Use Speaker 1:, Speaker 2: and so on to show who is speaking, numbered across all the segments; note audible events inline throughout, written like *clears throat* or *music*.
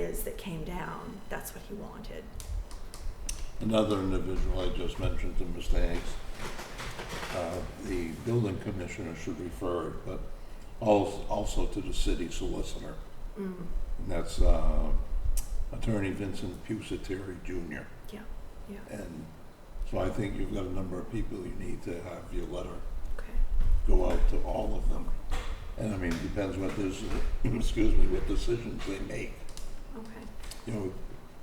Speaker 1: is that came down, that's what he wanted.
Speaker 2: Another individual I just mentioned to Mr. Hanks, uh, the building commissioner should refer it, but als- also to the city solicitor.
Speaker 1: Mm,
Speaker 2: And that's uh, Attorney Vincent Pusateri Jr.
Speaker 1: Yeah, yeah,
Speaker 2: And so I think you've got a number of people you need to have your letter
Speaker 1: okay.
Speaker 2: go out to all of them. And I mean, depends what this, *clears throat* excuse me, what decisions they make.
Speaker 1: Okay,
Speaker 2: You know,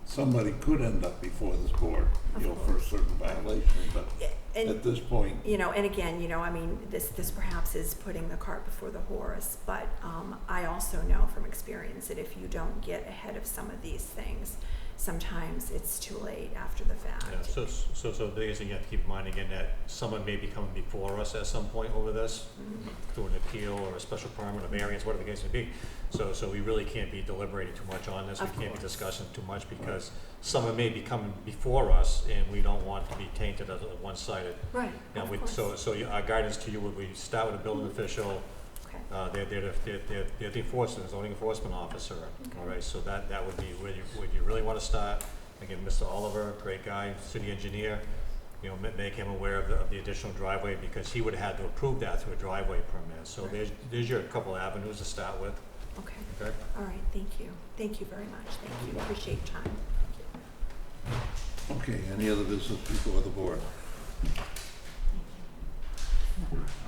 Speaker 2: somebody could end up before this board, you know,
Speaker 1: Of
Speaker 2: for a
Speaker 1: course.
Speaker 2: certain violation, but
Speaker 1: Yeah,
Speaker 2: at
Speaker 1: and,
Speaker 2: this point,
Speaker 1: you know, and again, you know, I mean, this, this perhaps is putting the cart before the horse, but, um, I also know from experience that if you don't get ahead of some of these things, sometimes it's too late after the
Speaker 3: Yeah,
Speaker 1: fact.
Speaker 3: so, so, so the thing you have to keep in mind again, that someone may be coming before us at some point over this,
Speaker 1: Mhm.
Speaker 3: through an appeal or a special permit, a variance, whatever the case may be. So, so we really can't be deliberating too much on this, we
Speaker 1: Of
Speaker 3: can't be
Speaker 1: course.
Speaker 3: discussing too much, because someone may be coming before us, and we don't want to be tainted as a one-sided.
Speaker 1: Right,
Speaker 3: Now,
Speaker 1: of
Speaker 3: we,
Speaker 1: course. Mm-hmm.
Speaker 3: so, so you- our guidance to you would, we start with a building official,
Speaker 1: Okay,
Speaker 3: uh, they're, they're, the- they're, they're, they're the enforcement, zoning enforcement officer, all
Speaker 1: Okay.
Speaker 3: right, so that, that would be where you, where you really wanna start. Again, Mr. Oliver, great guy, city engineer, you know, ma- make him aware of the, of the additional driveway, because he would have had to approve that through a driveway permit, so
Speaker 1: Right.
Speaker 3: there's, there's your couple avenues to start with,
Speaker 1: okay,
Speaker 3: okay?
Speaker 1: all right, thank you, thank you very much, thank you, appreciate your time. Thank you.
Speaker 2: okay, any other business before the board?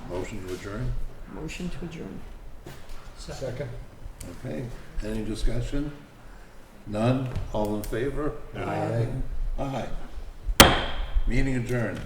Speaker 2: Motion to adjourn?
Speaker 4: Motion to adjourn.
Speaker 5: Second.
Speaker 2: Okay, any discussion? None? All in favor?
Speaker 3: Aye.
Speaker 2: Aye. Aye. Meeting adjourned.